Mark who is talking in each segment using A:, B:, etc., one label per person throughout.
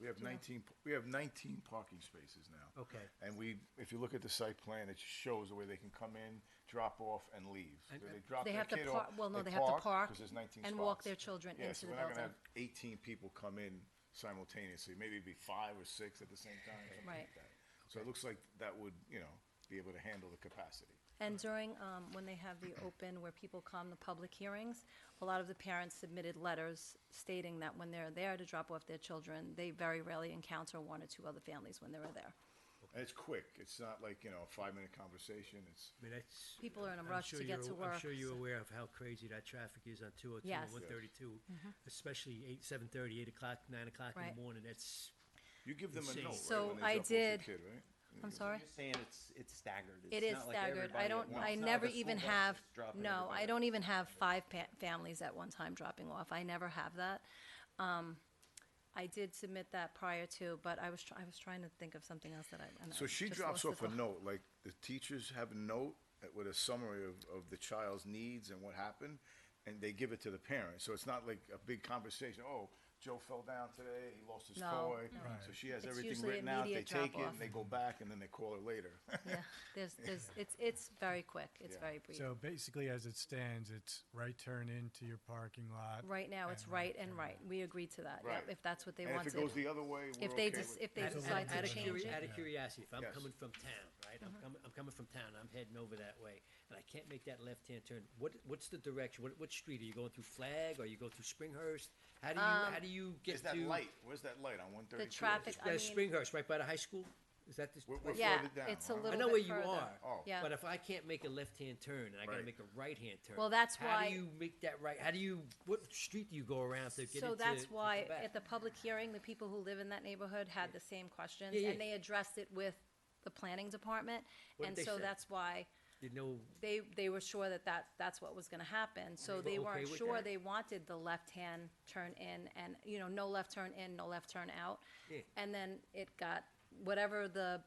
A: We have nineteen, p- we have nineteen parking spaces now.
B: Okay.
A: And we, if you look at the site plan, it shows the way they can come in, drop off, and leave. So They drop
C: uh, They
A: their
C: have to
A: kid
C: par-
A: off.
C: well, no, they have to park
A: Because there's nineteen spots.
C: and walk their children
A: Yeah, so
C: into the
A: we're not gonna
C: building.
A: have eighteen people come in simultaneously, maybe it'd be five or six at the same time, something
C: Right.
A: like that. So it looks like that would, you know, be able to handle the capacity.
C: And during, um, when they have the open where people come, the public hearings, a lot of the parents submitted letters stating that when they're there to drop off their children, they very rarely encounter one or two other families when they're there.
A: And it's quick, it's not like, you know, a five-minute conversation, it's,
B: I mean, that's.
C: People are in a
B: I'm
C: rush to
B: sure
C: get
B: you're-
C: to
B: I'm
C: work,
B: sure
C: so-
B: you're aware of how crazy that traffic is on two oh two
C: Yes.
B: and
C: Yes.
B: one thirty-two, especially eight, seven thirty, eight o'clock, nine o'clock in
C: Right.
B: the morning, that's.
A: you give them a
B: Insane.
A: note, right,
C: So
A: when they
C: I
A: drop off your
C: did-
A: kid, right?
C: I'm sorry?
D: You're saying it's, it's staggered.
C: It
D: It's
C: is
D: not like
C: staggered. I
D: everybody at
C: don't,
D: once.
C: I
D: It's not
C: never
D: like a school
C: even
D: bus
C: have,
D: that's dropping
C: no, I
D: everybody.
C: don't even have five pa- families at one time dropping off. I never have that. Um, I did submit that prior to, but I was, try- I was trying to think of something else that I. and I
A: So she
C: just
A: drops off
C: lost the
A: a
C: thought.
A: note, like the teachers have a note that- with a summary of, of the child's needs and what happened, and they give it to the parents. So it's not like a big conversation, oh, Joe fell down today, he lost his
C: No,
A: toy. So she has
C: It's
A: everything
C: usually
A: written out, they
C: immediate
A: take it,
C: drop-off.
A: and they go back, and then they call her later.
C: Yeah, there's, there's, it's, it's very quick. It's
A: Yeah.
C: very brief.
E: So basically, as it stands, it's right turn into your parking lot.
C: Right now, it's right and right. We agreed to that. Yep,
A: Right.
C: if that's what they
A: And
C: wanted.
A: if it goes the other way, we're
C: If they
A: okay
C: just,
A: with it.
C: if they
B: Out of-
C: decide
B: out
C: to
B: of
C: change
B: curi-
C: it. Mm-hmm.
B: Out of curiosity, if I'm
A: Yes.
B: coming from town, right, I'm coming, I'm coming from town, I'm heading over that way, and I can't make that left-hand turn, what, what's the direction, what, what street, are you going through Flag, or you go through Springhurst? How do you, how do you get
A: Is
B: to?
A: that light, where's that light on one thirty-two?
C: traffic- Um, I
B: Yeah,
C: mean-
B: Springhurst, right by the high school, is that the?
A: We're-
B: place?
A: we're
C: Yeah,
A: further down,
C: it's
A: huh?
C: a little
B: I
C: bit
B: know where you
C: further.
B: are.
A: Oh.
C: Yeah.
B: But if I can't make a left-hand turn and I gotta
A: Right.
B: make a right-hand turn.
C: Well, that's why-
B: How do you make that right, how do you, what street do you go around to get into?
C: So that's why,
B: Quebec?
C: at the public hearing, the people who live in that neighborhood had the same questions,
B: Yeah,
C: and
B: yeah.
C: they addressed it with the planning department.
B: What did
C: And
B: they
C: so
B: say?
C: that's why
B: You know,
C: they, they were sure that that, that's what was gonna happen. So
B: They
C: they
B: were okay
C: weren't
B: with
C: sure,
B: that?
C: they wanted the left-hand turn in and, you know, no left turn in, no left turn out.
B: Yeah.
C: And then it got, whatever the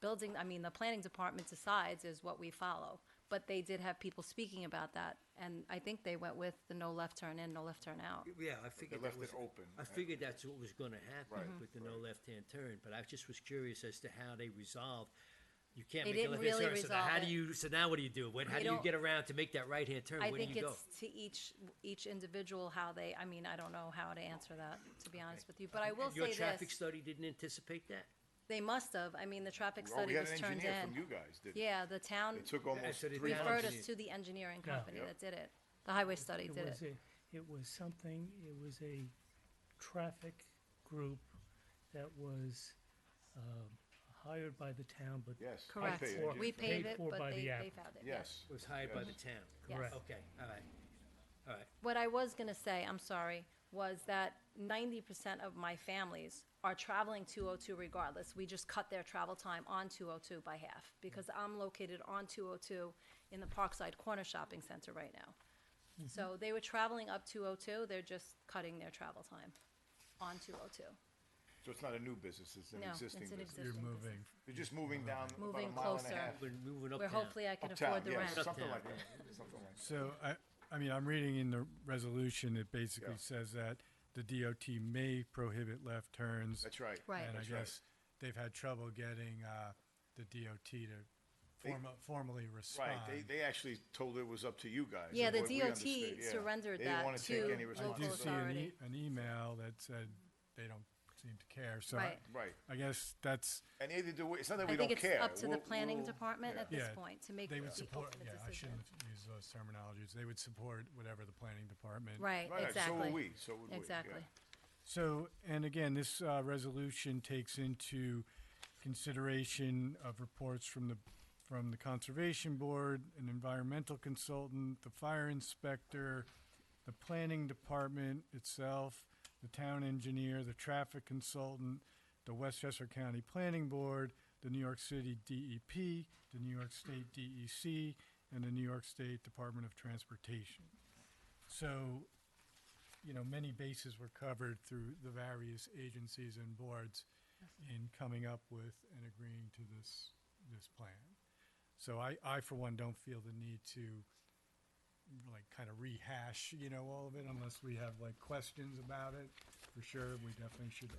C: building, I mean, the planning department decides is what we follow. But they did have people speaking about that, and I think they went with the no left turn in, no left turn out.
B: yeah, I figured
A: left
B: that
A: it
B: was.
A: open,
B: I
A: right?
B: figured that's what was gonna happen
A: Right,
B: with the no left-hand turn, but I just was curious as to how they resolved. You can't
C: They
B: make a
C: didn't
B: left-hand
C: really
B: turn, so now
C: resolve
B: how do
C: it.
B: you, so now what do you do? What, how
C: They
B: do you
C: don't-
B: get around to make that right-hand turn?
C: I
B: Where do
C: think
B: you go?
C: it's to each, each individual how they, I mean, I don't know how to answer that, to be honest with you, but I will
B: Your
C: say
B: traffic
C: this.
B: study didn't anticipate that?
C: They must have, I mean, the traffic
A: Oh, we
C: study
A: had
C: was
A: an
C: turned
A: engineer from
C: in.
A: you guys, didn't we?
C: Yeah, the town
A: It took almost
B: so they
A: three
B: did-
A: months.
C: referred us
B: engineers.
C: to the engineering
F: Yeah.
C: company
A: Yep.
C: that did it. The highway study did
F: was
C: it.
F: a- It was something, it was a traffic group that was um, hired by the town, but.
A: Yes. I
C: Correct.
A: paid
F: for-
A: it.
C: We paid
F: paid
C: it,
F: for
C: but
F: by
C: they,
F: the
C: they
F: app.
C: found it. yeah.
A: Yes.
B: It was hired by the
A: Yes.
B: town?
F: Correct.
B: Okay, all right, all right.
C: What I was gonna say, I'm sorry, was that ninety percent of my families are traveling two oh two regardless. We just cut their travel time on two oh two by half, because I'm located on two oh two in the Parkside Corner Shopping Center right now.
F: Mm-hmm.
C: So they were traveling up two oh two, they're just cutting their travel time on two oh two.
A: So it's not a new business, it's an
C: No, it's
A: existing
C: an
A: business.
C: existing
E: You're
C: business.
E: moving.
A: You're just moving down about a
C: Moving
A: mile and a
C: closer.
A: half.
B: We're moving
C: Where
B: uptown.
C: hopefully I can
A: Uptown,
C: afford the
A: yeah,
C: rent.
A: Something
B: Uptown.
A: like that, something like that.
E: So I, I mean, I'm reading in the resolution, it basically
A: Yeah.
E: says that the DOT may prohibit left turns.
A: That's right.
C: Right.
E: And I
A: That's right.
E: guess they've had trouble getting, uh, the DOT to
A: They-
E: forma- formally respond.
A: Right, they, they actually told it was up to you guys.
C: Yeah,
A: is
C: the
A: what we
C: DOT
A: understood, yeah.
C: surrendered
A: They didn't
C: that
A: wanna take
C: to
A: any
C: local
E: I do
A: responsibility.
E: see an,
C: authority.
E: e- an email that said they don't seem to care, so. I-
C: Right.
A: Right,
E: I guess that's,
A: and either do we, it's not that
C: I
A: we don't
C: think
A: care.
C: it's up to the
A: We'll-
C: planning
A: we'll-
C: department
A: yeah.
C: at this
E: Yeah,
C: point to make the
E: they would
C: ultimate
E: support, yeah, I
C: decision.
E: shouldn't use those terminologies, they would support whatever the planning department.
C: Right,
A: Right, so
C: exactly.
A: would we, so would we. yeah.
C: Exactly.
E: So, and again, this uh, resolution takes into consideration of reports from the, from the Conservation Board, an environmental consultant, the fire inspector, the planning department itself, the town engineer, the traffic consultant, the Westchester County Planning Board, the New York City DEP, the New York State DEC, and the New York State Department of Transportation. So, you know, many bases were covered through the various agencies and boards in coming up with and agreeing to this, this plan. So I, I for one don't feel the need to like kind of rehash, you know, all of it unless we have like questions about it. For sure, we definitely should